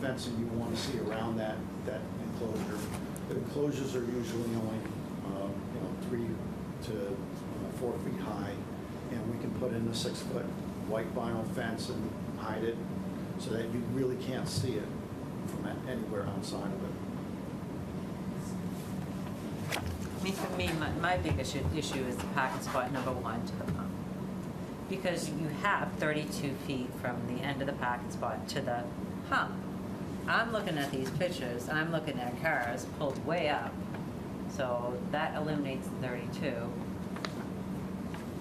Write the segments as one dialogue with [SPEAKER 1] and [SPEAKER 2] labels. [SPEAKER 1] fencing you want to see around that, that enclosure. The enclosures are usually only, um, you know, three to uh, four feet high, and we can put in a six-foot white vinyl fence and hide it so that you really can't see it from a- anywhere outside of it.
[SPEAKER 2] I mean, for me, my, my big issue, issue is the parking spot number one to the pump. Because you have thirty-two feet from the end of the parking spot to the pump. I'm looking at these pictures, I'm looking at cars pulled way up, so that eliminates the thirty-two.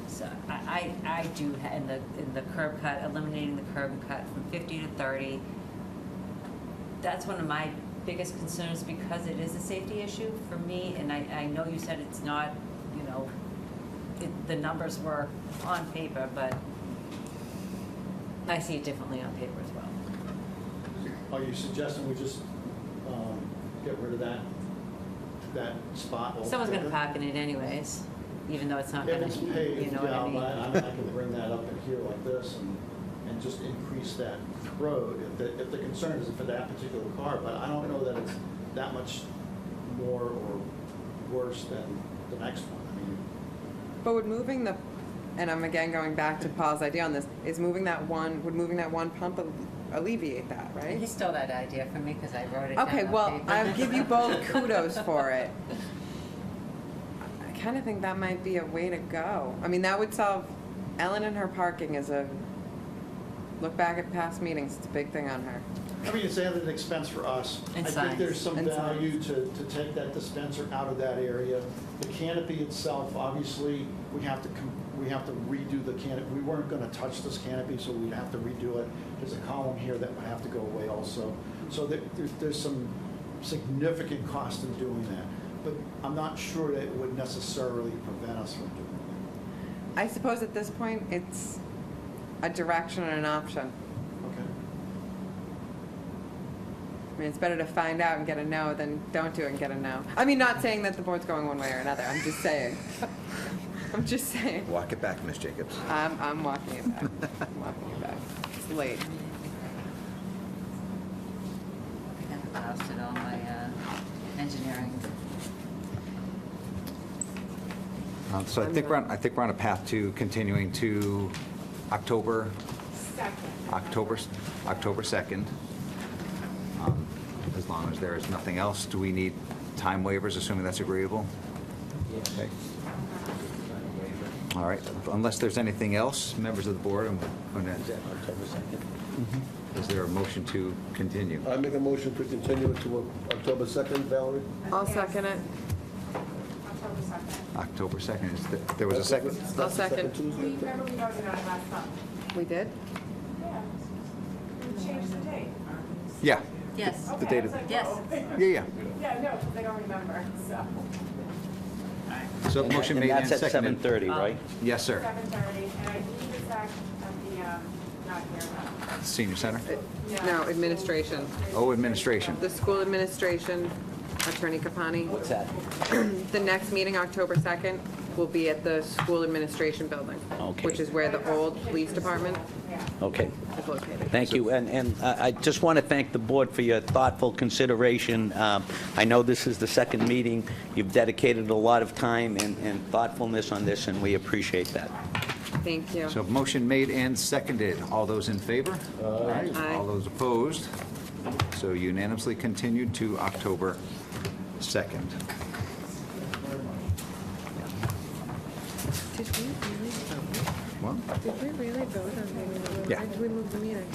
[SPEAKER 2] So I, I, I do, ha- in the, in the curb cut, eliminating the curb cut from fifty to thirty, that's one of my biggest concerns because it is a safety issue for me, and I, I know you said it's not, you know, it, the numbers were on paper, but I see it differently on paper as well.
[SPEAKER 1] Are you suggesting we just um, get rid of that, that spot?
[SPEAKER 2] Someone's gonna
[SPEAKER 1] altogether?
[SPEAKER 2] park in it anyways, even though it's not
[SPEAKER 1] If
[SPEAKER 2] gonna,
[SPEAKER 1] it's
[SPEAKER 2] you
[SPEAKER 1] paved, yeah,
[SPEAKER 2] know what I
[SPEAKER 1] but
[SPEAKER 2] mean?
[SPEAKER 1] I I can bring that up in here like this and, and just increase that road. If the, if the concern is for that particular car, but I don't know that it's that much more or worse than the next one. I mean,
[SPEAKER 3] But would moving the, and I'm again going back to Paul's idea on this, is moving that one, would moving that one pump al- alleviate that,
[SPEAKER 2] He
[SPEAKER 3] right?
[SPEAKER 2] stole that idea from me, cause I wrote it down
[SPEAKER 3] Okay,
[SPEAKER 2] on
[SPEAKER 3] well,
[SPEAKER 2] paper.
[SPEAKER 3] I'll give you both kudos for it. I kinda think that might be a way to go. I mean, that would solve, Ellen and her parking is a, look back at past meetings, it's a big thing on her.
[SPEAKER 1] I mean, it's added expense for us.
[SPEAKER 2] And
[SPEAKER 1] I
[SPEAKER 2] signs.
[SPEAKER 1] think there's some
[SPEAKER 3] And signs.
[SPEAKER 1] value to, to take that dispenser out of that area. The canopy itself, obviously, we have to, com- we have to redo the canopy. We weren't gonna touch this canopy, so we'd have to redo it. There's a column here that would have to go away also. So there, there's, there's some significant cost in doing that. But I'm not sure that it would necessarily prevent us from doing
[SPEAKER 3] I suppose at this point, it's a direction and an option.
[SPEAKER 1] that. Okay?
[SPEAKER 3] I mean, it's better to find out and get a no than don't do it and get a no. I mean, not saying that the board's going one way or another. I'm just saying. I'm just saying.
[SPEAKER 4] Walk it back, Miss Jacobs.
[SPEAKER 3] I'm, I'm walking it back. I'm walking it back. It's late.
[SPEAKER 2] I have exhausted all my, uh, engineering.
[SPEAKER 4] Uh, So I think we're, on- I think we're on a path to continuing to October, October, s- October 2nd. Um, As long as there is nothing else, do we need time waivers, assuming that's agreeable? Okay. All right, unless there's anything else, members of the board, I'm going to,
[SPEAKER 5] October 2nd.
[SPEAKER 4] is there a motion to continue?
[SPEAKER 5] I make a motion to continue it to October 2nd, Valerie?
[SPEAKER 3] I'll second it.
[SPEAKER 6] October second.
[SPEAKER 4] October 2nd, is the- there was a second?
[SPEAKER 5] That's the
[SPEAKER 3] I'll second.
[SPEAKER 6] We,
[SPEAKER 5] Tuesday?
[SPEAKER 6] remember we voted on it last month?
[SPEAKER 3] We did?
[SPEAKER 6] Yeah. We changed the date.
[SPEAKER 4] Yeah,
[SPEAKER 2] Yes,
[SPEAKER 6] Okay, I
[SPEAKER 4] date
[SPEAKER 6] was
[SPEAKER 4] of-
[SPEAKER 6] like,
[SPEAKER 2] Yes.
[SPEAKER 6] whoa.
[SPEAKER 4] yeah, yeah.
[SPEAKER 6] Yeah, no, because I don't remember, so,
[SPEAKER 4] So motion made and
[SPEAKER 7] that's at
[SPEAKER 4] seconded.
[SPEAKER 7] 7:30, right?
[SPEAKER 4] Yes, sir.
[SPEAKER 6] seven thirty, and I believe it's at, at the, um, not here, but.
[SPEAKER 4] Senior Center?
[SPEAKER 3] No, administration.
[SPEAKER 4] Oh, administration.
[SPEAKER 3] The school administration, Attorney Capani.
[SPEAKER 7] What's that?
[SPEAKER 3] The next meeting, October 2nd, will be at the school administration building,
[SPEAKER 7] Okay.
[SPEAKER 3] which is where the old police department
[SPEAKER 6] Yeah.
[SPEAKER 7] Okay,
[SPEAKER 3] is located.
[SPEAKER 7] thank you. And, and I I just want to thank the board for your thoughtful consideration. Um, I know this is the second meeting. You've dedicated a lot of time and and thoughtfulness on this, and we appreciate that.
[SPEAKER 3] Thank you.
[SPEAKER 4] So motion made and seconded. All those in favor?
[SPEAKER 3] Aye.
[SPEAKER 4] All those opposed? So unanimously continued to October 2nd.
[SPEAKER 3] Did we really vote?
[SPEAKER 4] Well,
[SPEAKER 3] Did we really vote on moving the
[SPEAKER 4] Yeah.
[SPEAKER 3] Or did we move the meeting?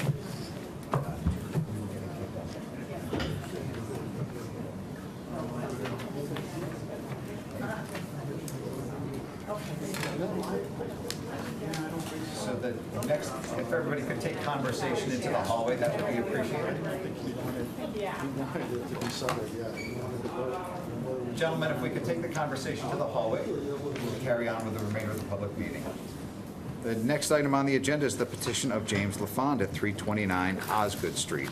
[SPEAKER 4] so the next, if everybody could take conversation into the hallway, that would be appreciated.
[SPEAKER 1] We wanted it to be settled, yeah. We wanted to vote.
[SPEAKER 4] Gentlemen, if we could take the conversation to the hallway, we'll carry on with the remainder of the public meeting. The next item on the agenda is the petition of James LaFond at 329 Osgood Street.